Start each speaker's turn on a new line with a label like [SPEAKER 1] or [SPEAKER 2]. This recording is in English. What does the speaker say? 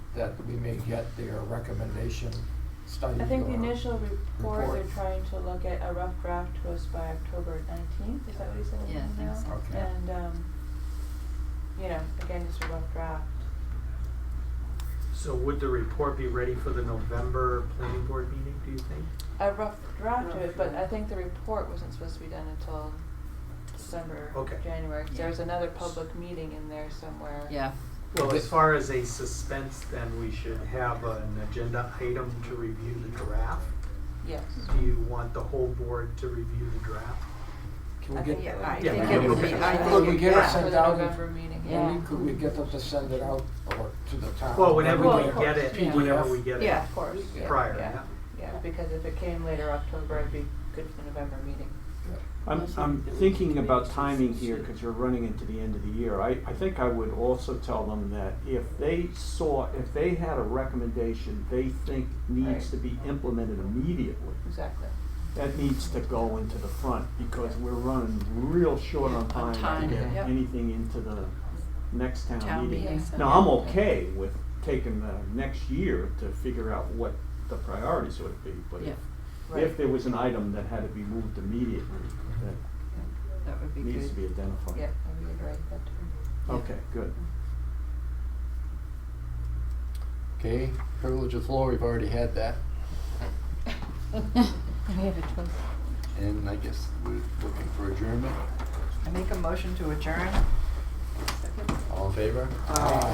[SPEAKER 1] that we may get their recommendation study.
[SPEAKER 2] I think the
[SPEAKER 1] or-
[SPEAKER 2] initial report, they're
[SPEAKER 1] report.
[SPEAKER 2] trying to look at, a rough draft to us by October nineteenth, is that what he said in the
[SPEAKER 3] Yeah, I think
[SPEAKER 2] email?
[SPEAKER 3] so.
[SPEAKER 1] Okay.
[SPEAKER 2] And, um, you know, again, just a rough draft.
[SPEAKER 4] So would the report be ready for the November planning board meeting, do you think?
[SPEAKER 2] A rough draft of it, but I
[SPEAKER 4] Rough draft.
[SPEAKER 2] think the report wasn't supposed to be done until December,
[SPEAKER 4] Okay.
[SPEAKER 2] January, 'cause
[SPEAKER 3] Yeah.
[SPEAKER 2] there was another public meeting in there somewhere.
[SPEAKER 3] Yeah,
[SPEAKER 4] Well, as far as a suspense, then we should have an agenda item to review the draft.
[SPEAKER 2] Yes.
[SPEAKER 4] Do you want the whole board to review the draft?
[SPEAKER 1] Can we
[SPEAKER 2] I
[SPEAKER 1] get?
[SPEAKER 2] think-
[SPEAKER 5] Yeah, I
[SPEAKER 1] yeah,
[SPEAKER 5] think
[SPEAKER 1] we
[SPEAKER 5] it would
[SPEAKER 1] get-
[SPEAKER 5] be- I think
[SPEAKER 1] Could we
[SPEAKER 5] it-
[SPEAKER 1] get it
[SPEAKER 5] yeah.
[SPEAKER 2] For
[SPEAKER 1] sent
[SPEAKER 2] the
[SPEAKER 1] out?
[SPEAKER 2] November meeting,
[SPEAKER 3] Yeah.
[SPEAKER 2] yeah.
[SPEAKER 1] Maybe could we get them to send it out or to the town?
[SPEAKER 4] Well, whenever
[SPEAKER 2] Well, of
[SPEAKER 4] we get
[SPEAKER 2] course,
[SPEAKER 4] it,
[SPEAKER 2] yeah.
[SPEAKER 4] whenever we get
[SPEAKER 5] Yeah.
[SPEAKER 4] it
[SPEAKER 2] Of course, yeah,
[SPEAKER 4] prior,
[SPEAKER 2] yeah,
[SPEAKER 4] yeah.
[SPEAKER 2] yeah, because if it came later October, it'd be good for the November meeting.
[SPEAKER 6] I'm, I'm thinking about timing here, cause you're running into the end of the year. I, I think I would also tell them that if they saw, if they had a recommendation they think
[SPEAKER 2] Right.
[SPEAKER 6] needs to be implemented immediately,
[SPEAKER 2] Exactly.
[SPEAKER 6] that needs to go into the front, because we're running real short on
[SPEAKER 3] On
[SPEAKER 6] time
[SPEAKER 3] time,
[SPEAKER 6] to
[SPEAKER 3] yep.
[SPEAKER 6] get anything into the next
[SPEAKER 3] Town
[SPEAKER 6] town meeting.
[SPEAKER 3] meeting.
[SPEAKER 6] Now, I'm okay with taking the next year to figure out what the priorities would be, but
[SPEAKER 3] yeah,
[SPEAKER 6] if, if there was an item that had to be moved immediately, that
[SPEAKER 3] that would be
[SPEAKER 6] needs to be
[SPEAKER 3] good.
[SPEAKER 6] identified.
[SPEAKER 2] Yeah, I would write that too.
[SPEAKER 6] Okay, good.
[SPEAKER 7] Okay, privilege of floor, we've already had that,
[SPEAKER 3] We have a choice.
[SPEAKER 7] and I guess we're looking for adjournment.
[SPEAKER 5] I make a motion to adjourn.
[SPEAKER 7] All in favor?
[SPEAKER 1] Ah.